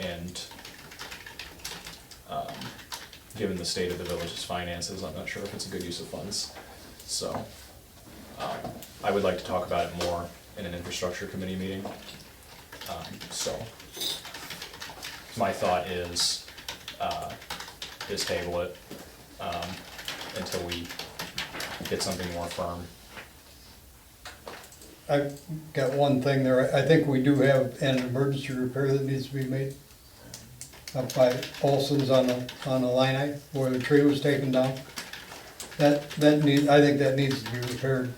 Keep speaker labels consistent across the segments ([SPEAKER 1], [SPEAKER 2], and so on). [SPEAKER 1] and um, given the state of the village's finances, I'm not sure if it's a good use of funds. So um, I would like to talk about it more in an infrastructure committee meeting. Um, So my thought is, uh, is table it um, until we get something more firm.
[SPEAKER 2] I've got one thing there, I think we do have an emergency repair that needs to be made up by Olson's on the, on the line I, where the tree was taken down. That, that need, I think that needs to be repaired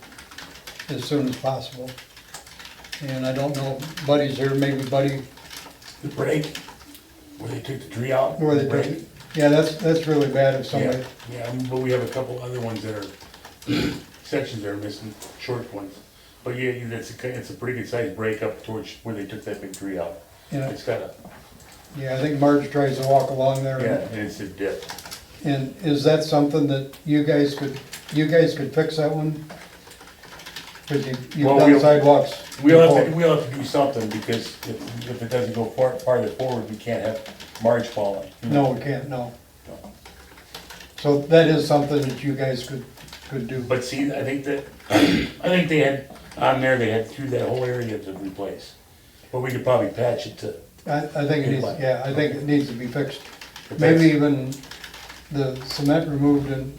[SPEAKER 2] as soon as possible. And I don't know, Buddy's here, maybe Buddy,
[SPEAKER 3] The break, where they took the tree out?
[SPEAKER 2] where
[SPEAKER 3] the
[SPEAKER 2] they,
[SPEAKER 3] break.
[SPEAKER 2] yeah, that's, that's really bad if
[SPEAKER 3] Yeah,
[SPEAKER 2] somebody,
[SPEAKER 3] yeah, but we have a couple other ones that are, sections that are missing, short ones. But yeah, you- it's a, it's a pretty good sized break up towards where they took that big tree out.
[SPEAKER 2] you know,
[SPEAKER 3] It's got a,
[SPEAKER 2] yeah, I think Marge tries to walk along there. and-
[SPEAKER 3] yeah, and it's a dip.
[SPEAKER 2] And is that something that you guys could, you guys could fix that one? Cause you, you've
[SPEAKER 3] Well,
[SPEAKER 2] done
[SPEAKER 3] we'll-
[SPEAKER 2] sidewalks.
[SPEAKER 3] We'll have to,
[SPEAKER 2] before.
[SPEAKER 3] we'll have to do something because if, if it doesn't go far, farther forward, we can't have Marge falling.
[SPEAKER 2] No, we can't, no. So that is something that you guys could, could do.
[SPEAKER 3] But see, I think that, I think they had, on there, they had through that whole area to replace. But we could probably patch it to,
[SPEAKER 2] I, I think it needs, yeah, I think it needs to be fixed.
[SPEAKER 3] But
[SPEAKER 2] Maybe
[SPEAKER 3] that's-
[SPEAKER 2] even the cement removed and,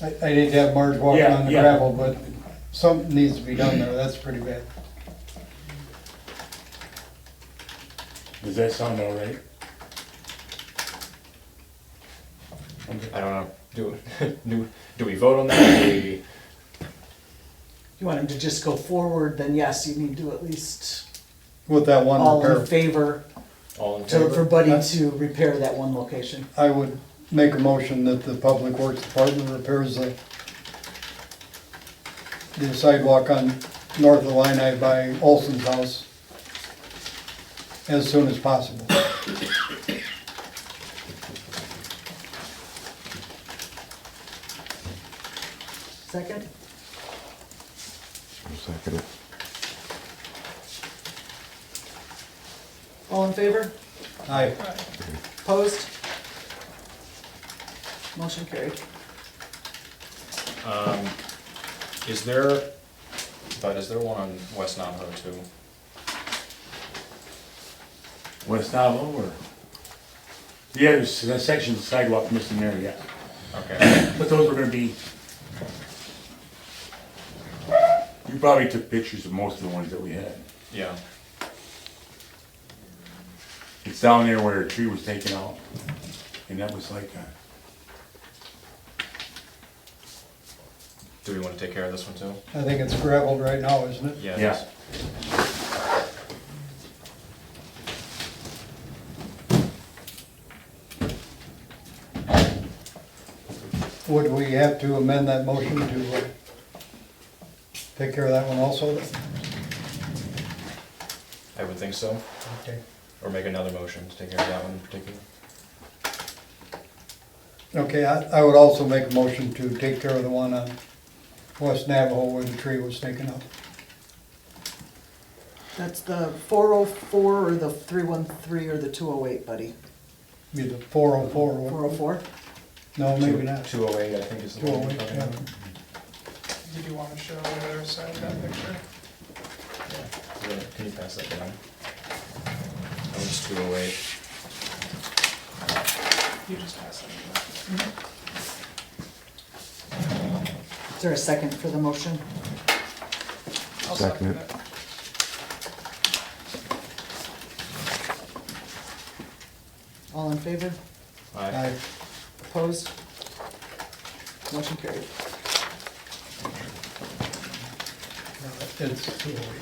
[SPEAKER 2] I, I need to have Marge walking
[SPEAKER 3] Yeah,
[SPEAKER 2] on the
[SPEAKER 3] yeah.
[SPEAKER 2] gravel, but something needs to be done there, that's pretty bad.
[SPEAKER 3] does that sound all right?
[SPEAKER 1] I don't know, do, do, do we vote on that? Do we?
[SPEAKER 4] you want him to just go forward, then yes, you need to at least
[SPEAKER 2] With that one
[SPEAKER 4] all in
[SPEAKER 2] repair,
[SPEAKER 4] favor
[SPEAKER 1] All in
[SPEAKER 4] to, for
[SPEAKER 1] favor?
[SPEAKER 4] Buddy to repair that one location.
[SPEAKER 2] I would make a motion that the Public Works Department repairs the the sidewalk on north of Illini by Olson's house as soon as possible.
[SPEAKER 4] Second?
[SPEAKER 5] Second.
[SPEAKER 4] All in favor?
[SPEAKER 2] Aye.
[SPEAKER 4] Opposed? Motion carried.
[SPEAKER 1] Um, Is there, but is there one on West Navajo too?
[SPEAKER 3] West Navajo or? Yeah, there's a section of sidewalk missing there, yeah.
[SPEAKER 1] Okay,
[SPEAKER 3] But those were gonna be. You probably took pictures of most of the ones that we had.
[SPEAKER 1] yeah,
[SPEAKER 3] It's down there where a tree was taken out, and that was like, uh,
[SPEAKER 1] do we wanna take care of this one too?
[SPEAKER 2] I think it's gravelled right now, isn't it?
[SPEAKER 1] Yeah.
[SPEAKER 3] yeah.
[SPEAKER 2] Would we have to amend that motion to uh, take care of that one also?
[SPEAKER 1] I would think so,
[SPEAKER 2] Okay.
[SPEAKER 1] or make another motion to take care of that one in particular.
[SPEAKER 2] Okay, I, I would also make a motion to take care of the one on West Navajo where the tree was taken out.
[SPEAKER 4] That's the four oh four or the three one three or the two oh eight, Buddy?
[SPEAKER 2] Be the four oh four.
[SPEAKER 4] Four oh four?
[SPEAKER 2] No, maybe not.
[SPEAKER 1] Two oh eight, I think is the
[SPEAKER 2] Two
[SPEAKER 1] one
[SPEAKER 2] oh
[SPEAKER 1] we're
[SPEAKER 2] eight,
[SPEAKER 1] talking
[SPEAKER 2] yeah.
[SPEAKER 1] about.
[SPEAKER 6] Did you wanna show the other side
[SPEAKER 2] oh
[SPEAKER 6] of that picture?
[SPEAKER 1] Yeah, Can you pass that down? That was two oh eight.
[SPEAKER 6] You just pass it.
[SPEAKER 4] Is there a second for the motion?
[SPEAKER 6] I'll
[SPEAKER 5] Second.
[SPEAKER 6] second it.
[SPEAKER 4] All in favor?
[SPEAKER 1] Aye.
[SPEAKER 2] Aye.
[SPEAKER 4] Opposed? Motion carried.
[SPEAKER 2] It's two oh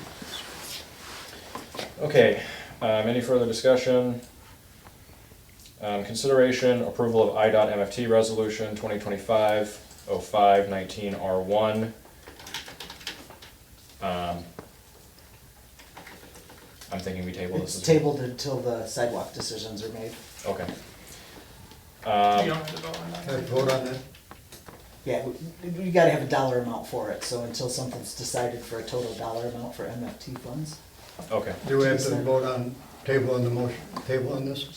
[SPEAKER 2] eight.
[SPEAKER 1] Okay, um, any further discussion? Um, consideration, approval of IDOT MFT resolution twenty twenty-five oh five nineteen R one. Um, I'm thinking we table this
[SPEAKER 4] It's
[SPEAKER 1] as.
[SPEAKER 4] tabled until the sidewalk decisions are made.
[SPEAKER 1] Okay.
[SPEAKER 6] You
[SPEAKER 1] Um,
[SPEAKER 6] don't have to vote on
[SPEAKER 2] Can I
[SPEAKER 6] that.
[SPEAKER 2] vote on that?
[SPEAKER 4] Yeah, we- we gotta have a dollar amount for it, so until something's decided for a total dollar amount for MFT funds.
[SPEAKER 1] okay,
[SPEAKER 2] Do we have to vote on table on the motion, table on this?